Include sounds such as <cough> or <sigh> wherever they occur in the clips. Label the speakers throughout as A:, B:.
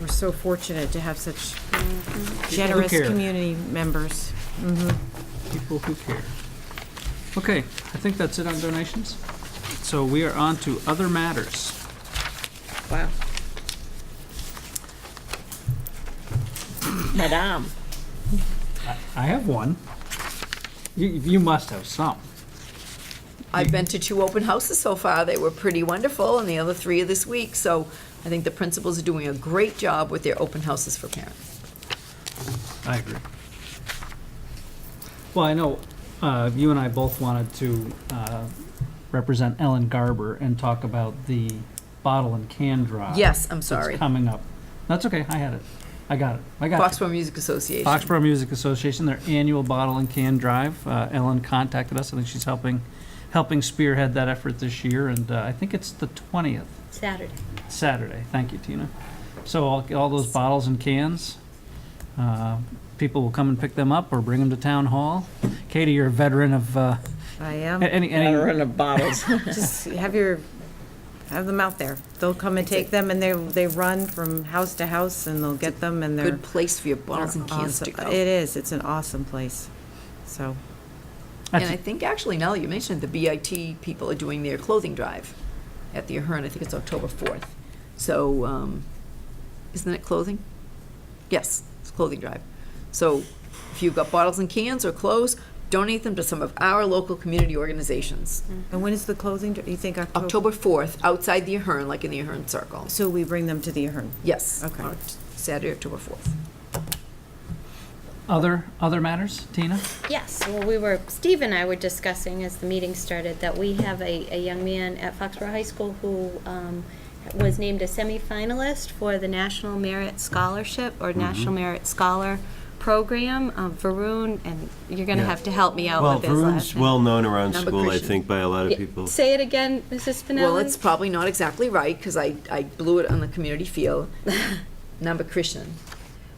A: We're so fortunate to have such
B: Mm-hmm.
C: People who
A: generous
C: care.
A: community members.
C: people who care. Okay, I think that's it on donations. So we are on to other matters.
A: Wow.
B: Madame.
C: I have one. You, you must have some.
B: I've been to two open houses so far. They were pretty wonderful, and the other three are this week. So I think the principals are doing a great job with their open houses for parents.
C: I agree. Well, I know uh, you and I both wanted to uh, represent Ellen Garber and talk about the bottle and can drive.
B: Yes, I'm
C: that's
B: sorry.
C: coming up. That's okay, I had it. I got it. I got it.
B: Foxborough Music Association.
C: Foxborough Music Association, their annual bottle and can drive. Uh, Ellen contacted us. I think she's helping, helping spearhead that effort this year, and uh, I think it's the twentieth
D: Saturday.
C: Saturday. Thank you, Tina. So all, all those bottles and cans, uh, people will come and pick them up or bring them to town hall. Katie, you're a veteran of uh,
A: I
C: a- <laughs>
A: am.
C: any any.
E: of bottles.
A: Just have your, have them out there. They'll come and take them, and they, they run from house to house, and they'll get them, and they're.
B: Good place for your bottles and cans to
A: awesome.
B: go.
A: It is, it's an awesome place, so.
B: And I think actually, now that you mentioned, it, the BIT people are doing their clothing drive at the Ahern. I think it's October 4th. So, um, isn't it clothing? Yes, it's clothing drive. So if you've got bottles and cans or clothes, donate them to some of our local community organizations.
A: And when is the closing, do you think October?
B: October 4th, outside the Ahern, like in the Ahern Circle.
A: So we bring them to the Ahern.
B: Yes.
A: Okay.
B: on Saturday, October 4th.
C: Other, other matters, Tina?
D: Yes, well, we were, Steve and I were discussing as the meeting started that we have a, a young man at Foxborough High School who um, was named a semifinalist for the National Merit Scholarship or National Merit Scholar Program. Um, Varun, and you're going to
F: Yeah.
D: have to help me out
F: Well,
D: with this last
F: Varun's well-known around
B: Number
F: school, I
B: Christian.
F: think, by a lot of people.
D: Say it again, Mrs. Spinelli.
B: Well, it's probably not exactly right, because I, I blew it on the community field. Number Christian.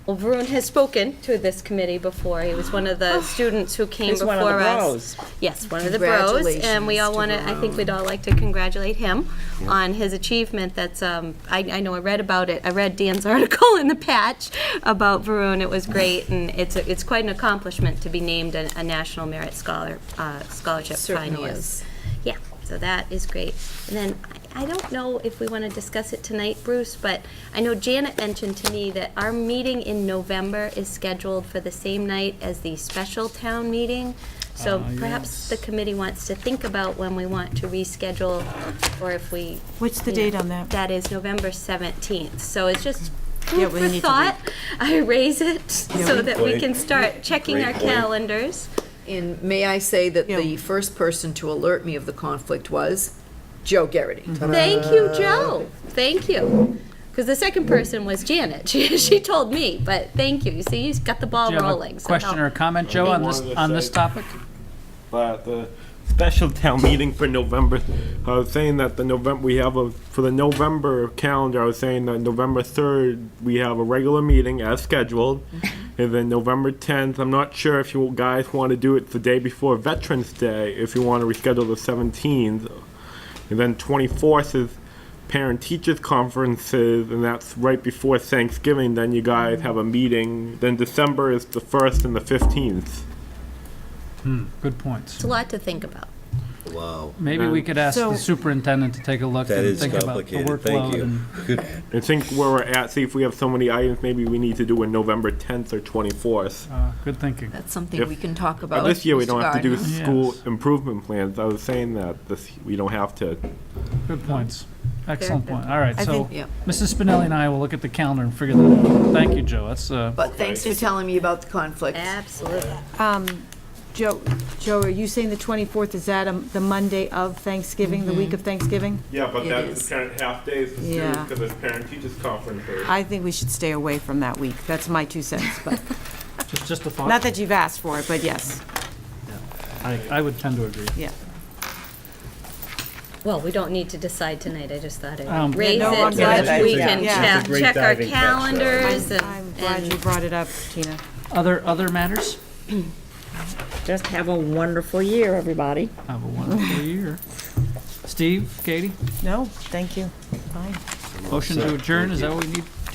D: Well, Varun has spoken to this committee before. He was one of the students who came
E: He's
D: before
E: one of the
D: us.
E: bros.
D: Yes, one of the bros, and we
B: Congratulations
D: all
B: to
D: want to. I think we'd all like to congratulate him on his achievement. That's um, I, I know I read about it. I read Dan's <laughs> article in the Patch about Varun. It was great, and it's a, it's quite an accomplishment to be named a, a National Merit Scholar uh, Scholarship
B: Certainly
D: finalist.
B: is.
D: Yeah, so that is great. And then I I don't know if we want to discuss it tonight, Bruce, but I know Janet mentioned to me that our meeting in November is scheduled for the same night as the special town meeting. So
C: Ah,
D: perhaps the
C: yes.
D: committee wants to think about when we want to reschedule or if we.
A: What's the
D: you know,
A: date on that?
D: That is November 17th. So it's just
A: Yeah,
D: food
A: we
D: for
A: need to
D: thought. I raise it so
F: Great
D: that we
F: point.
D: can start checking
F: Great
D: our
F: point.
D: calendars.
B: And may I say that
A: Yeah.
B: the first person to alert me of the conflict was Joe Garrity.
D: Mm. Thank you, Joe. Thank you. Because the second person was Janet. <laughs> She, she told me, but thank you. You see, you've got the ball
C: Do you have
D: rolling.
C: a
D: so
C: question or
D: help.
C: a comment, Joe, on this,
G: Wanted to
C: on this
G: say-
C: topic?
G: that the special town meeting for November, I was saying that the November, we have a, for the November calendar, I was saying that November 3rd, we have a regular meeting as scheduled. And then November 10th, I'm not sure if you guys want to do it the day before Veterans Day, if you want to reschedule the 17th. And then 24th is parent-teachers conferences, and that's right before Thanksgiving, then you guys have a meeting. Then December is the 1st and the 15th.
C: Good points.
D: It's a lot to think about.
F: Wow,
C: Maybe we could ask the
A: So-
C: superintendent to take a look
F: Um, that
C: and
F: is
C: think about the
F: complicated, thank
C: workload
F: you.
C: and
G: I think where we're at, see if we have so many items, maybe we need to do a November 10th or 24th.
C: Uh, Good thinking.
B: That's something
G: If-
B: we can talk
G: But
B: about.
G: this year, we
B: Mr.
G: don't have to do
B: Gardner.
C: Yes.
G: school improvement plans. I was saying that, this, we don't have to.
C: Good points. Excellent point. All right,
A: I
C: so
A: think-
B: yeah.
C: Mrs. Spinelli and I will look at the calendar and figure that out. Thank you, Joe. That's, uh,
B: But thanks for telling me about the conflict.
D: Absolutely.
A: Um, Joe, Joe, are you saying the 24th, is that um, the Monday of Thanksgiving, the
B: Mm-hmm.
A: week of Thanksgiving?
G: Yeah, but
B: It that's is.
G: parent half days,
A: too, Yeah. 'cause
G: it's parent teachers conference.
A: I think we should stay away from that week. That's my two cents, but,
C: just just a
A: not
C: thought.
A: that you've asked for it, but yes,
C: I I would tend to agree.
A: yeah.
D: Well, we don't need to decide tonight. I just thought
C: Um,
D: I'd raise it
A: Yeah, no, I'm
D: so
A: glad
D: that
A: you-
D: we
A: yeah.
D: can
A: Yeah.
D: check, check our calendars and.
A: I'm glad
D: and-
A: you brought it up, Tina.
C: Other, other matters?
E: <clears throat> Just have a wonderful year, everybody.
C: Have a wonderful year. Steve, Katie,
A: No, thank you. Fine.
C: motion to adjourn, is that what we need?